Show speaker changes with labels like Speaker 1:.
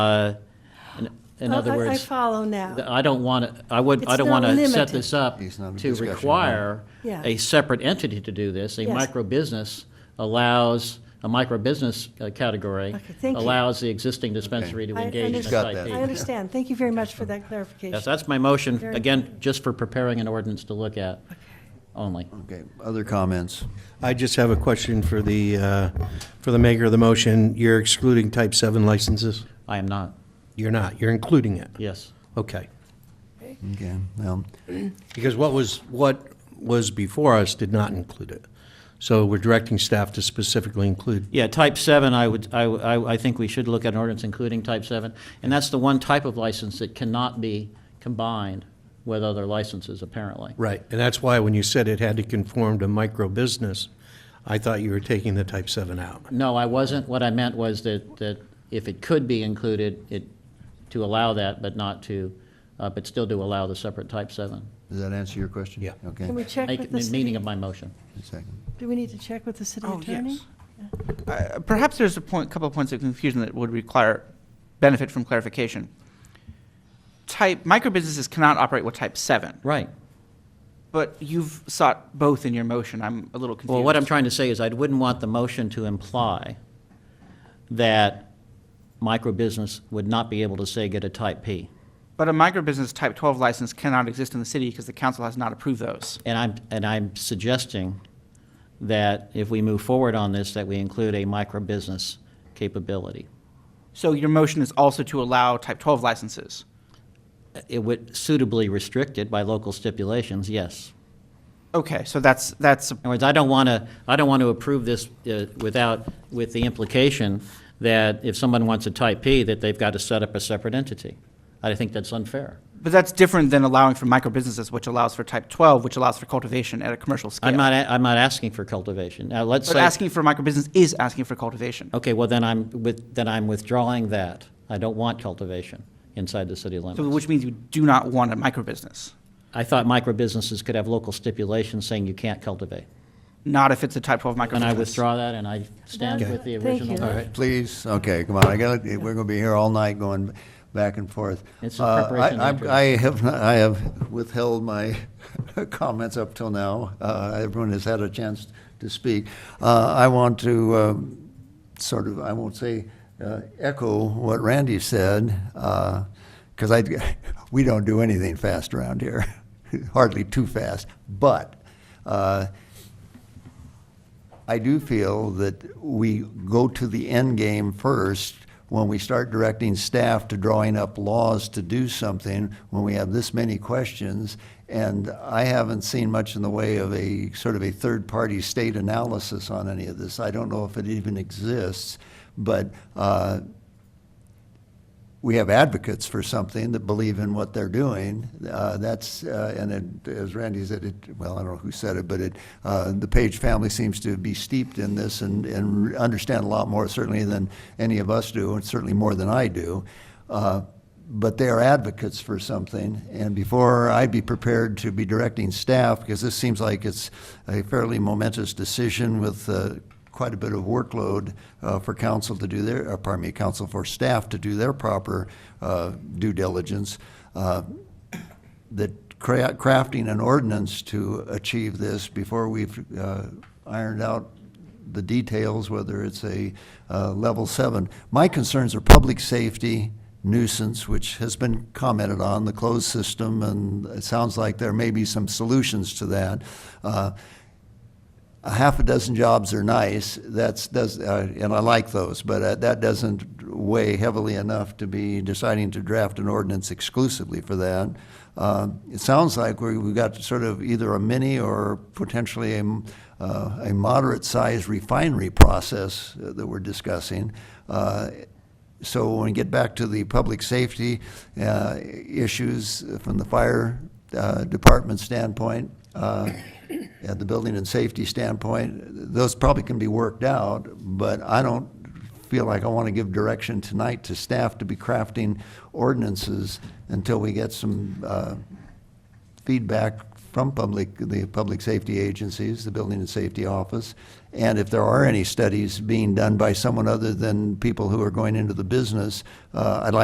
Speaker 1: Uh, in- In
Speaker 2: Oh,
Speaker 1: other
Speaker 2: I- I
Speaker 1: words,
Speaker 2: follow now.
Speaker 1: th- I don't want to, I would, I
Speaker 2: It's
Speaker 1: don't
Speaker 2: not
Speaker 1: want to set
Speaker 2: limited.
Speaker 1: this up
Speaker 3: It's not a
Speaker 1: to
Speaker 3: discussion, huh?
Speaker 1: require
Speaker 2: Yeah.
Speaker 1: a separate entity to do this. A
Speaker 2: Yes.
Speaker 1: micro business allows, a micro business uh, category
Speaker 2: Okay, thank you.
Speaker 1: allows the existing dispensary to
Speaker 2: I
Speaker 1: engage in
Speaker 2: understand.
Speaker 3: Got that.
Speaker 1: SIP.
Speaker 2: I understand. Thank you very much for that
Speaker 1: Yes,
Speaker 2: clarification.
Speaker 1: that's my motion,
Speaker 2: Very
Speaker 1: again, just for preparing an ordinance to look at only.
Speaker 3: Okay, other comments?
Speaker 4: I just have a question for the, uh, for the maker of the motion. You're excluding type 7 licenses?
Speaker 1: I am not,
Speaker 4: You're not, you're including it?
Speaker 1: yes.
Speaker 4: Okay.
Speaker 3: Okay, well,
Speaker 4: Because what was, what was before us did not include it. So we're directing staff to specifically include,
Speaker 1: Yeah, type seven, I would, I, I, I think we should look at an ordinance including type seven, and that's the one type of license that cannot be combined with other licenses, apparently.
Speaker 4: right, and that's why when you said it had to conform to micro business, I thought you were taking the type 7 out.
Speaker 1: No, I wasn't, what I meant was that, that if it could be included, it, to allow that, but not to, uh, but still to allow the separate type seven.
Speaker 3: does that answer your question?
Speaker 4: Yeah.
Speaker 3: Okay,
Speaker 2: Can we check
Speaker 1: Make
Speaker 2: with
Speaker 1: it
Speaker 2: the
Speaker 1: the meaning
Speaker 2: city?
Speaker 1: of my motion.
Speaker 3: a second.
Speaker 2: Do we need to check with the city
Speaker 5: Oh,
Speaker 2: attorney?
Speaker 5: yes. Uh, Perhaps there's a point, couple of points of confusion that would require benefit from clarification. Type, microbusinesses cannot operate with type seven,
Speaker 1: Right.
Speaker 5: but you've sought both in your motion. I'm a little confused.
Speaker 1: Well, what I'm trying to say is I wouldn't want the motion to imply that microbusiness would not be able to say get a type P.
Speaker 5: But a microbusiness type twelve license cannot exist in the city because the council has not approved those.
Speaker 1: And I'm, and I'm suggesting that if we move forward on this, that we include a micro-business capability.
Speaker 5: So your motion is also to allow type twelve licenses.
Speaker 1: It would suitably restrict it by local stipulations, yes.
Speaker 5: Okay, so that's, that's,
Speaker 1: In other words, I don't want to, I don't want to approve this uh, without, with the implication that if someone wants a type P, that they've got to set up a separate entity. I think that's unfair.
Speaker 5: but that's different than allowing for microbusinesses, which allows for type twelve, which allows for cultivation at a commercial scale.
Speaker 1: I'm not, a- I'm not asking for cultivation. Now, let's say.
Speaker 5: But asking for microbusiness is asking for cultivation.
Speaker 1: Okay, well, then I'm, with then I'm withdrawing that. I don't want cultivation inside the city limits.
Speaker 5: So, which means you do not want a microbusiness.
Speaker 1: I thought microbusinesses could have local stipulations saying you can't cultivate.
Speaker 5: Not if it's a type 12 microbusiness.
Speaker 1: And I withdraw that, and I stand with the
Speaker 2: Okay. Thank
Speaker 1: original.
Speaker 2: you. All right.
Speaker 3: Please, okay, come on, I got, we're gonna be here all night going back and forth.
Speaker 1: It's in
Speaker 3: Uh, I-
Speaker 1: preparation,
Speaker 3: I'm-
Speaker 1: Andrew.
Speaker 3: I have, not- I have withheld my comments up till now. Uh, Everyone has had a chance to speak. Uh, I want to um, sort of, I won't say uh, echo what Randy said, because I, we don't do anything fast around here, hardly too fast. But uh, I do feel that we go to the end game first when we start directing staff to drawing up laws to do something, when we have this many questions. And I haven't seen much in the way of a sort of a third-party state analysis on any of this. I don't know if it even exists, but uh, we have advocates for something that believe in what they're doing. Uh, that's uh, and it, as Randy said, it, well, I don't know who said it, but it, uh, the Page family seems to be steeped in this and, and understand a lot more certainly than any of us do, and certainly more than I do. Uh, but they are advocates for something, and before I'd be prepared to be directing staff, because this seems like it's a fairly momentous decision with uh, quite a bit of workload uh, for council to do their, or pardon me, council for staff to do their proper uh, due diligence, uh, that cra- crafting an ordinance to achieve this before we've uh, ironed out the details, whether it's a uh, level seven. My concerns are public safety, nuisance, which has been commented on, the closed system, and it sounds like there may be some solutions to that. Uh, a half a dozen jobs are nice, that's, does, uh, and I like those, but uh, that doesn't weigh heavily enough to be deciding to draft an ordinance exclusively for that. Uh, It sounds like we- we've got sort of either a mini or potentially a moderate-sized refinery process uh, that we're discussing. Uh, so when we get back to the public safety uh, issues from the fire uh, department standpoint, uh, and the building and safety standpoint, those probably can be worked out, but I don't feel like I want to give direction tonight to staff to be crafting ordinances until we get some uh, feedback from public, the public safety agencies, the Building and Safety Office. And if there are any studies being done by someone other than people who are going into the business, uh, I'd like